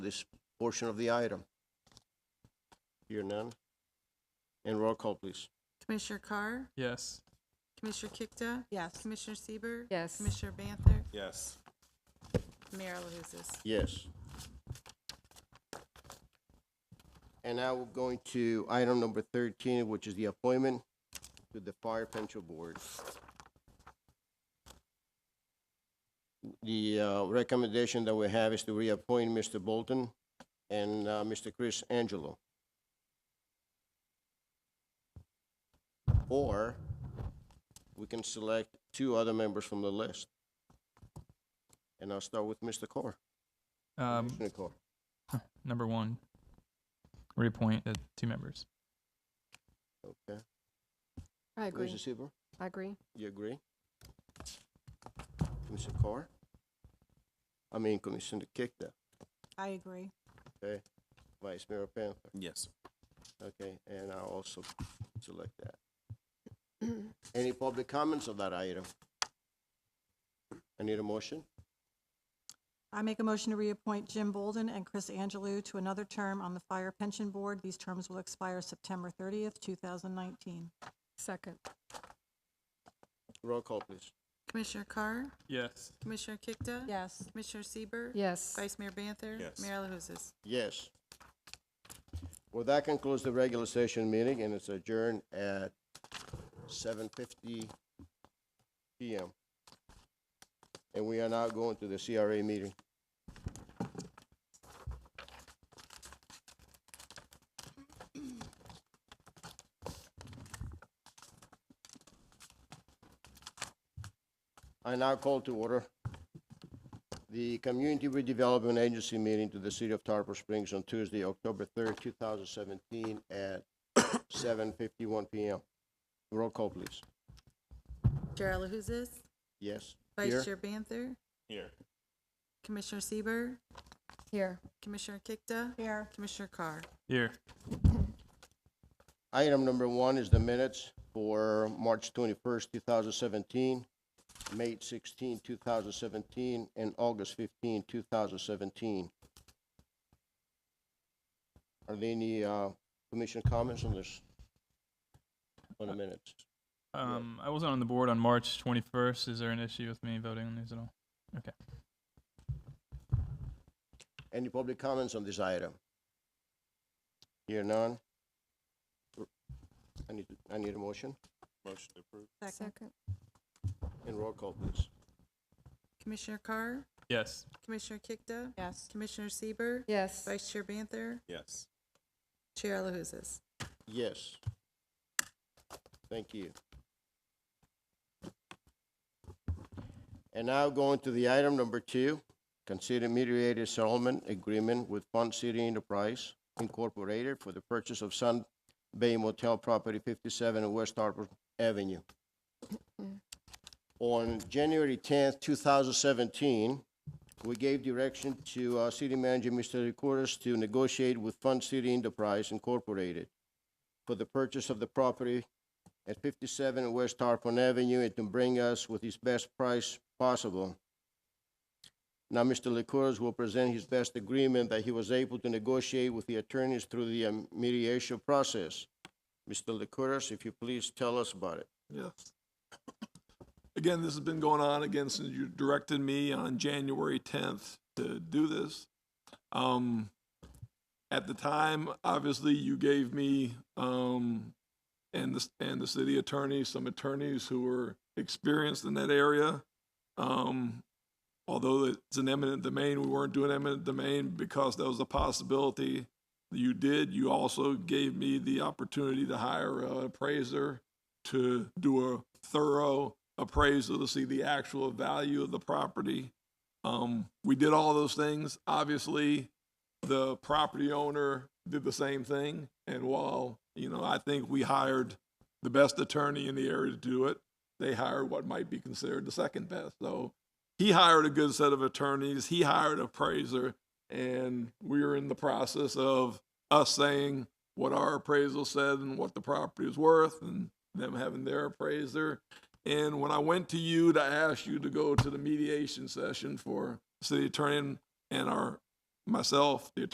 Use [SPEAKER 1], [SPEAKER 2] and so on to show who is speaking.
[SPEAKER 1] this portion of the item? Hear none? And roll call, please.
[SPEAKER 2] Commissioner Carr?
[SPEAKER 3] Yes.
[SPEAKER 2] Commissioner Kikta?
[SPEAKER 4] Yes.
[SPEAKER 2] Commissioner Sieber,
[SPEAKER 4] Yes.
[SPEAKER 2] Commissioner Banther?
[SPEAKER 3] Yes.
[SPEAKER 2] Mayor LaHousas?
[SPEAKER 1] Yes. And now we're going to item number thirteen, which is the appointment to the Fire Pension Board. The, uh, recommendation that we have is to reappoint Mr. Bolton and, uh, Mr. Chris Angelo. Or we can select two other members from the list. And I'll start with Mr. Carr.
[SPEAKER 3] Um,
[SPEAKER 1] Commissioner Carr.
[SPEAKER 3] number one, reappoint the two members.
[SPEAKER 1] Okay.
[SPEAKER 4] I agree.
[SPEAKER 1] Commissioner Silver,
[SPEAKER 4] I agree.
[SPEAKER 1] you agree? Commissioner Carr? I mean, Commissioner Kikta,
[SPEAKER 4] I agree.
[SPEAKER 1] Vice Mayor Panther.
[SPEAKER 3] Yes.
[SPEAKER 1] Okay, and I also select that. Any public comments on that item? I need a motion.
[SPEAKER 5] I make a motion to reappoint Jim Bolden and Chris Angelou to another term on the Fire Pension Board. These terms will expire September 30th, 2019.
[SPEAKER 4] Second.
[SPEAKER 1] Roll call, please.
[SPEAKER 2] Commissioner Carr?
[SPEAKER 3] Yes.
[SPEAKER 2] Commissioner Kikta?
[SPEAKER 5] Yes.
[SPEAKER 2] Commissioner Sieber,
[SPEAKER 4] Yes.
[SPEAKER 2] Vice Mayor Banther?
[SPEAKER 3] Yes.
[SPEAKER 2] Mayor LaHousas?
[SPEAKER 1] Yes. Well, that concludes the regular session meeting, and it's adjourned at seven fifty PM. And we are now going to the CRA meeting. I now call to order the Community Redevelopment Agency meeting to the City of Tarpon Springs on Tuesday, October third, two thousand seventeen, at seven fifty-one PM. Roll call, please.
[SPEAKER 2] Chair LaHousas?
[SPEAKER 1] Yes?
[SPEAKER 2] Vice
[SPEAKER 1] Here?
[SPEAKER 2] Chair Banther?
[SPEAKER 3] Here.
[SPEAKER 2] Commissioner Sieber,
[SPEAKER 4] Here.
[SPEAKER 2] Commissioner Kikta?
[SPEAKER 5] Here.
[SPEAKER 2] Commissioner Carr?
[SPEAKER 3] Here.
[SPEAKER 1] Item number one is the minutes for March twenty-first, two thousand seventeen, May 16, 2017, and August 15, 2017. Are there any, uh, commission comments on this? On the minutes?
[SPEAKER 3] Um, I wasn't on the board on March twenty-first. Is there an issue with me voting on these at all?
[SPEAKER 1] Any public comments on this item? Hear none? I need, I need a motion
[SPEAKER 3] Motion approved.
[SPEAKER 5] Second.
[SPEAKER 4] Second.
[SPEAKER 1] and roll call, please.
[SPEAKER 2] Commissioner Carr?
[SPEAKER 3] Yes.
[SPEAKER 2] Commissioner Kikta?
[SPEAKER 5] Yes.
[SPEAKER 2] Commissioner Sieber,
[SPEAKER 4] Yes.
[SPEAKER 2] Vice Chair Banther?
[SPEAKER 3] Yes.
[SPEAKER 2] Chair LaHousas?
[SPEAKER 1] Yes. Thank you. And now going to the item number two, consider mediated settlement agreement with Fund City Enterprise Incorporated for the purchase of Sun Bay Motel property fifty-seven on West Harper Avenue. On January tenth, two thousand seventeen, we gave direction to our city manager, Mr. Recordes, to negotiate with Fund City Enterprise Incorporated for the purchase of the property at fifty-seven West Tarpon Avenue and to bring us with his best price possible. Now, Mr. Licouris will present his best agreement that he was able to negotiate with the attorneys through the um, mediation process. Mr. Licouris, if you please tell us about it.
[SPEAKER 6] Yes. Again, this has been going on again since you directed me on January tenth to do this. Um, at the time, obviously, you gave me, um, and the, and the city attorney, some attorneys who were experienced in that area. Um, although it's an eminent domain, we weren't doing eminent domain because that was a possibility. You did, you also gave me the opportunity to hire an appraiser to do a thorough appraisal to see the actual value of the property. Um, we did all those things. Obviously, the property owner did the same thing. And while, you know, I think we hired the best attorney in the area to do it, they hired what might be considered the second best. So he hired a good set of attorneys, he hired an appraiser, and we are in the process of us saying what our appraisal said and what the property is worth and them having their appraiser. And when I went to you to ask you to go to the mediation session for city attorney and our myself, the attorney